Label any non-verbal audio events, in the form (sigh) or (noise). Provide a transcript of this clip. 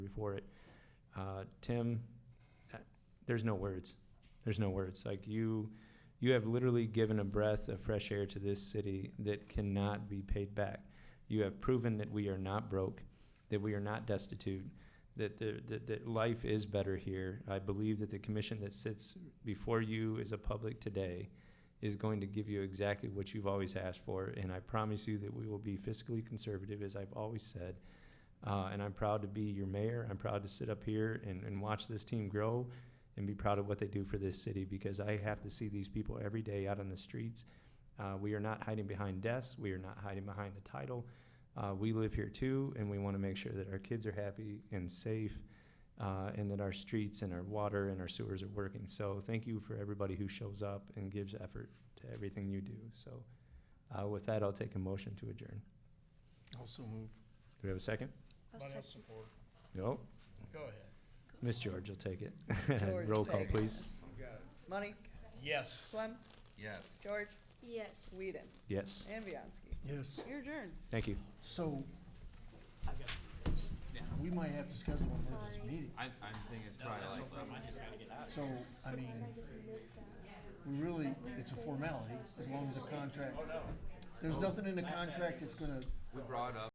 for it. Uh, Tim, uh, there's no words. There's no words. Like you, you have literally given a breath of fresh air to this city that cannot be paid back. You have proven that we are not broke, that we are not destitute, that, the, that, that life is better here. I believe that the commission that sits before you as a public today is going to give you exactly what you've always asked for. And I promise you that we will be fiscally conservative, as I've always said. Uh, and I'm proud to be your mayor. I'm proud to sit up here and, and watch this team grow and be proud of what they do for this city because I have to see these people every day out on the streets. Uh, we are not hiding behind desks, we are not hiding behind the title. Uh, we live here too, and we want to make sure that our kids are happy and safe. Uh, and that our streets and our water and our sewers are working. So, thank you for everybody who shows up and gives effort to everything you do. So, uh, with that, I'll take a motion to adjourn. Also move. Do we have a second? support. No. Go ahead. Miss George will take it. (laughs) George Roll call, second. please. Money, Yes. Swem, Yes. George, Yes. Whedon, Yes. and Bianski. Yes. You're adjourned. Thank you. So, we might have to schedule an emergency meeting. I'm, I'm thinking it's probably like. So, I mean, we really, it's a formality, as long as the contract. There's nothing in the contract that's gonna We brought up